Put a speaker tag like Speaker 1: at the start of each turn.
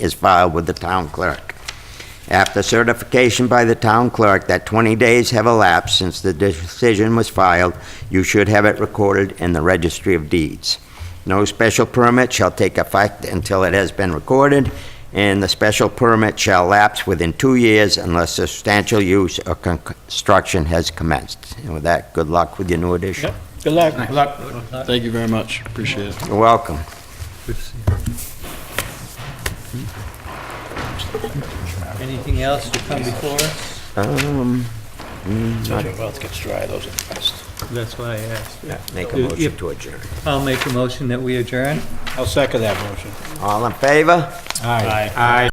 Speaker 1: is filed with the town clerk. After certification by the town clerk that 20 days have elapsed since the decision was filed, you should have it recorded in the registry of deeds. No special permit shall take effect until it has been recorded, and the special permit shall lapse within two years unless substantial use or con- construction has commenced. And with that, good luck with your new addition.
Speaker 2: Good luck. Good luck.
Speaker 3: Thank you very much, appreciate it.
Speaker 1: You're welcome.
Speaker 4: Anything else to come before us?
Speaker 1: Um,
Speaker 2: Well, it gets dry, those are the best.
Speaker 4: That's why I asked.
Speaker 1: Make a
Speaker 4: If-
Speaker 1: motion to adjourn.
Speaker 4: I'll make a motion that we adjourn.
Speaker 2: I'll second that motion.
Speaker 1: All in favor?
Speaker 2: Aye. Aye.